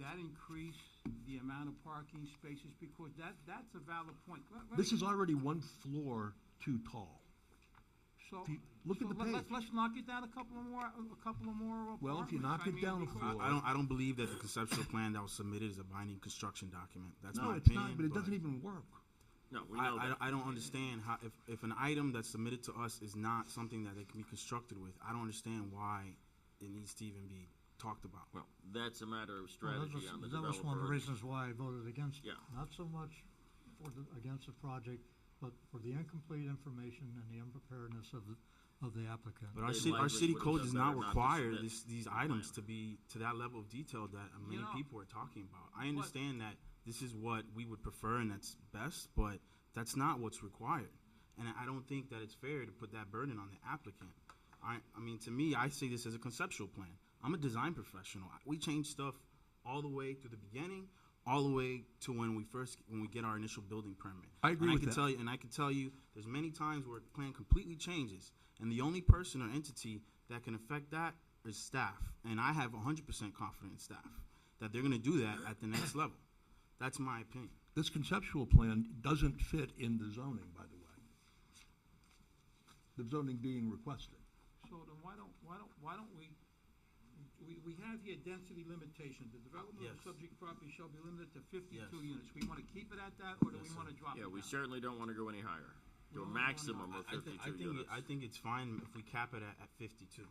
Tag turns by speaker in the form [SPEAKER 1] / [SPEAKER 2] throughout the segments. [SPEAKER 1] that increase the amount of parking spaces? Because that, that's a valid point. Let- let-
[SPEAKER 2] This is already one floor too tall.
[SPEAKER 1] So,
[SPEAKER 2] if you look at
[SPEAKER 1] so
[SPEAKER 2] the
[SPEAKER 1] let- let's,
[SPEAKER 2] page.
[SPEAKER 1] let's knock it down a couple of more, a couple of more apartments.
[SPEAKER 2] Well, if you knock
[SPEAKER 1] I
[SPEAKER 2] it
[SPEAKER 1] mean,
[SPEAKER 2] down a
[SPEAKER 1] because-
[SPEAKER 2] floor-
[SPEAKER 3] I, I don't. I don't believe that the conceptual plan that was submitted is a binding construction document. That's
[SPEAKER 2] No,
[SPEAKER 3] my
[SPEAKER 2] it's
[SPEAKER 3] opinion.
[SPEAKER 2] not, but it doesn't even work.
[SPEAKER 4] No, we know
[SPEAKER 3] I,
[SPEAKER 4] that.
[SPEAKER 3] I, I don't understand how if, if an item that's submitted to us is not something that they can be constructed with, I don't understand why it needs to even be talked about.
[SPEAKER 4] Well, that's a matter of
[SPEAKER 5] Well, that
[SPEAKER 4] strategy
[SPEAKER 5] was-
[SPEAKER 4] on the
[SPEAKER 5] That was one of
[SPEAKER 4] developer.
[SPEAKER 5] the reasons why I voted against it.
[SPEAKER 4] Yeah.
[SPEAKER 5] Not so much for the, against the project, but for the incomplete information and the unpreparedness of, the of the applicant.
[SPEAKER 3] But our
[SPEAKER 4] They
[SPEAKER 3] city, our
[SPEAKER 4] likely
[SPEAKER 3] city
[SPEAKER 4] would've
[SPEAKER 3] code
[SPEAKER 4] done
[SPEAKER 3] does not
[SPEAKER 4] better not to
[SPEAKER 3] require
[SPEAKER 4] submit
[SPEAKER 3] this, these
[SPEAKER 4] the
[SPEAKER 3] items
[SPEAKER 4] plan.
[SPEAKER 3] to be to that level of detail that uh, many
[SPEAKER 1] know-
[SPEAKER 3] people are talking about. I understand that this is what we would prefer and that's best, but that's not what's required. And I- I don't think that it's fair to put that burden on the applicant. I, I mean, to me, I see this as a conceptual plan. I'm a design professional. I- We change stuff all the way to the beginning, all the way to when we first, when we get our initial building permit.
[SPEAKER 2] I agree
[SPEAKER 3] And
[SPEAKER 2] with
[SPEAKER 3] can
[SPEAKER 2] that.
[SPEAKER 3] tell you- and I can tell you, there's many times where the plan completely changes, and the only person or entity that can affect that is staff. And I have 100% confidence in staff that they're going to do that at the next level. That's my opinion.
[SPEAKER 2] This conceptual plan doesn't fit in the zoning, by the way. The zoning being requested.
[SPEAKER 1] So then why don't, why don't, why don't we, we, we have here density limitation. The development of
[SPEAKER 3] Yes.
[SPEAKER 1] subject property shall be limited to fifty-two
[SPEAKER 3] Yes.
[SPEAKER 1] units. We wanna keep it at that, or do we
[SPEAKER 3] Yes, sir.
[SPEAKER 1] wanna drop it
[SPEAKER 4] Yeah, we
[SPEAKER 1] down?
[SPEAKER 4] certainly don't want to go any higher, to
[SPEAKER 1] No,
[SPEAKER 4] a
[SPEAKER 1] no, no.
[SPEAKER 4] maximum of
[SPEAKER 3] I, I think, I,
[SPEAKER 4] fifty-two
[SPEAKER 3] think it-
[SPEAKER 4] units.
[SPEAKER 3] I think it's fine if we cap it at, at 52.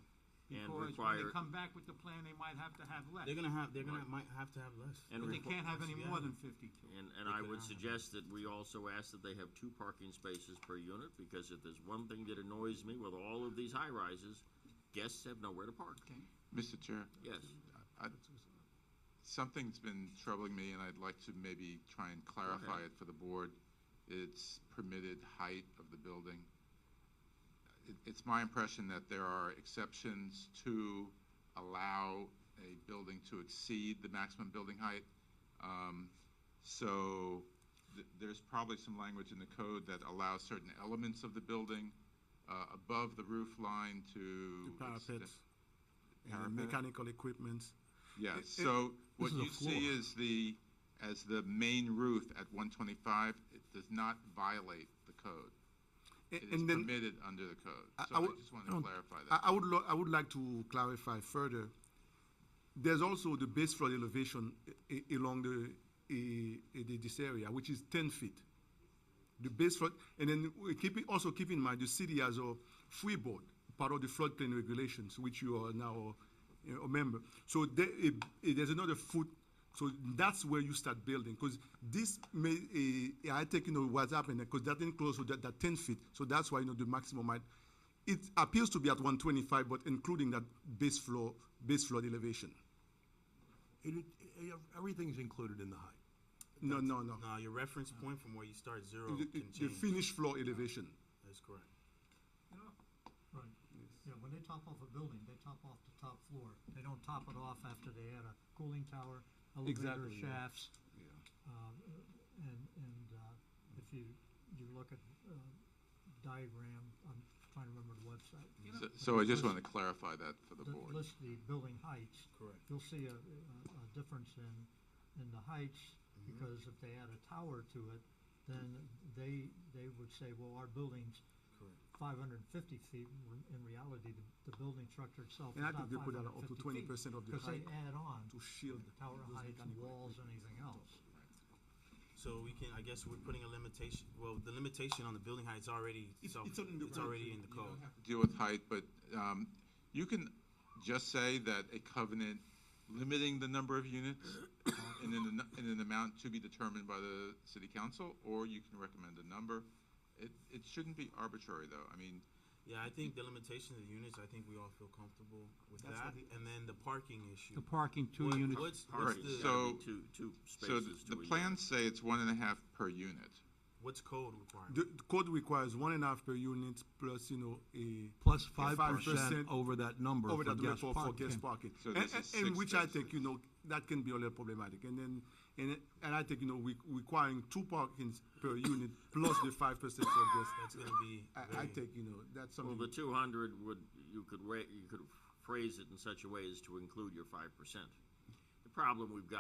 [SPEAKER 1] Because
[SPEAKER 4] and
[SPEAKER 1] when
[SPEAKER 4] require-
[SPEAKER 1] they come back with the plan, they might have to have less.
[SPEAKER 3] They're going to have, they're going to, might have to have less.
[SPEAKER 4] And
[SPEAKER 1] But they
[SPEAKER 4] requ-
[SPEAKER 1] can't have any
[SPEAKER 3] Yeah.
[SPEAKER 1] more than fifty-two.
[SPEAKER 4] And,
[SPEAKER 3] They
[SPEAKER 4] and I
[SPEAKER 3] could
[SPEAKER 4] would
[SPEAKER 3] not have.
[SPEAKER 4] suggest that we also ask that they have two parking spaces per unit, because if there's one thing that annoys me with all of these high-rises, guests have nowhere to park.
[SPEAKER 1] Okay.
[SPEAKER 6] Mr. Chair,
[SPEAKER 4] Yes,
[SPEAKER 6] I, something's been troubling me, and I'd like to maybe try and clarify it for the board. It's permitted height of the building. It, it's my impression that there are exceptions to allow a building to exceed the maximum building height. Um, so th- there's probably some language in the code that allows certain elements of the building, uh, above the roof line to. extend-
[SPEAKER 7] and
[SPEAKER 6] Parapet.
[SPEAKER 7] mechanical equipment.
[SPEAKER 6] Yeah,
[SPEAKER 7] It-
[SPEAKER 6] so what
[SPEAKER 2] is a
[SPEAKER 6] you see
[SPEAKER 2] floor.
[SPEAKER 6] is the, as the main roof at one twenty-five, it does not violate the code. It is
[SPEAKER 7] And then
[SPEAKER 6] permitted under the code,
[SPEAKER 7] I-
[SPEAKER 6] so I
[SPEAKER 7] would-
[SPEAKER 6] just
[SPEAKER 7] I
[SPEAKER 6] wanted to
[SPEAKER 7] don't-
[SPEAKER 6] clarify
[SPEAKER 7] I,
[SPEAKER 6] that.
[SPEAKER 7] I would, lo- I would like to clarify further. There's also the base flood elevation i- i- along the, i- i- this area, which is ten feet. The base flood, and then we keep it, also keep in mind, the city has a free board, part of the floodplain regulations, which you are now you know, a member. So there, i- i- there's another foot, so that's where you start building, because this may, eh, I take, you know, what's happening, because that enclosed, so that, that ten feet, so that's why, you know, the maximum might, it appears to be at one twenty-five, but including that base floor, base flood elevation.
[SPEAKER 2] It, it- everything's included in the height.
[SPEAKER 7] No, no, no.
[SPEAKER 3] No, your reference point from where you start zero
[SPEAKER 7] The- the-
[SPEAKER 3] can
[SPEAKER 7] The
[SPEAKER 3] change.
[SPEAKER 7] finished floor elevation.
[SPEAKER 3] That's correct.
[SPEAKER 5] Right. Yeah, when they top off a building, they top off the top floor. They don't top it off after they add a cooling tower, elevator
[SPEAKER 2] Exactly, yeah.
[SPEAKER 5] shafts. Um, and, and, uh, if you, you look at, uh, diagram, I'm trying to remember the website.
[SPEAKER 6] So- So I just wanted to clarify that for the
[SPEAKER 5] that
[SPEAKER 6] board.
[SPEAKER 5] List the building heights.
[SPEAKER 3] Correct.
[SPEAKER 5] You'll see a, a, a difference in, in the heights,
[SPEAKER 7] Mm-hmm.
[SPEAKER 5] because if they add a tower to it, then they, they would say, well, our building's
[SPEAKER 3] Correct.
[SPEAKER 5] five hundred and fifty feet, When in reality, the, the building structure itself is
[SPEAKER 7] And I think
[SPEAKER 5] not five
[SPEAKER 7] they put
[SPEAKER 5] hundred
[SPEAKER 7] that
[SPEAKER 5] and
[SPEAKER 7] up to
[SPEAKER 5] fifty feet.
[SPEAKER 7] twenty percent of the
[SPEAKER 5] Because they
[SPEAKER 7] height
[SPEAKER 5] add on
[SPEAKER 7] to shield.
[SPEAKER 5] tower
[SPEAKER 7] those
[SPEAKER 5] heights, and
[SPEAKER 7] mechanical
[SPEAKER 5] walls,
[SPEAKER 7] equipment.
[SPEAKER 5] anything else.
[SPEAKER 3] So we can, I guess we're putting a limitation, well, the limitation on the building height is already,
[SPEAKER 7] It's-
[SPEAKER 3] self-
[SPEAKER 7] it's on the
[SPEAKER 3] it's
[SPEAKER 7] code.
[SPEAKER 3] already in the code.
[SPEAKER 6] Deal with height, but, um, you can just say that a covenant limiting the number of units in an, in an amount to be determined by the city council, or you can recommend a number. It, it shouldn't be arbitrary, though. I mean,
[SPEAKER 3] Yeah, I think the limitation of the units, I think we all feel comfortable with
[SPEAKER 2] That's
[SPEAKER 3] that.
[SPEAKER 2] what the-
[SPEAKER 3] And then the parking issue.
[SPEAKER 1] The parking, two
[SPEAKER 3] What-
[SPEAKER 1] units.
[SPEAKER 3] What's, what's
[SPEAKER 6] Alright,
[SPEAKER 3] the,
[SPEAKER 6] so-
[SPEAKER 4] two, two
[SPEAKER 6] So
[SPEAKER 4] spaces
[SPEAKER 6] th-
[SPEAKER 4] to
[SPEAKER 6] the
[SPEAKER 4] a unit.
[SPEAKER 6] plans say it's one and a half per unit.
[SPEAKER 3] what's code requirement?
[SPEAKER 7] The the code requires one and a half per unit plus, you know, a.
[SPEAKER 2] Plus
[SPEAKER 7] a
[SPEAKER 2] five percent over that number
[SPEAKER 7] Over
[SPEAKER 2] for
[SPEAKER 7] that number
[SPEAKER 2] guest
[SPEAKER 7] for, for guest
[SPEAKER 2] parking.
[SPEAKER 7] parking.
[SPEAKER 6] So
[SPEAKER 7] And,
[SPEAKER 6] this
[SPEAKER 7] and-
[SPEAKER 6] is
[SPEAKER 7] and
[SPEAKER 6] six
[SPEAKER 7] which I
[SPEAKER 6] spaces.
[SPEAKER 7] think, you know, that can be a little problematic. And then, and, and I think, you know, we, requiring two parkings per unit plus the five percent for guests.
[SPEAKER 3] That's gonna be
[SPEAKER 7] I, I
[SPEAKER 3] very-
[SPEAKER 7] think, you know, that's
[SPEAKER 4] Well, the
[SPEAKER 7] something,
[SPEAKER 4] two hundred would, you could wa, you could phrase it in such a way as to include your five percent. The problem we've got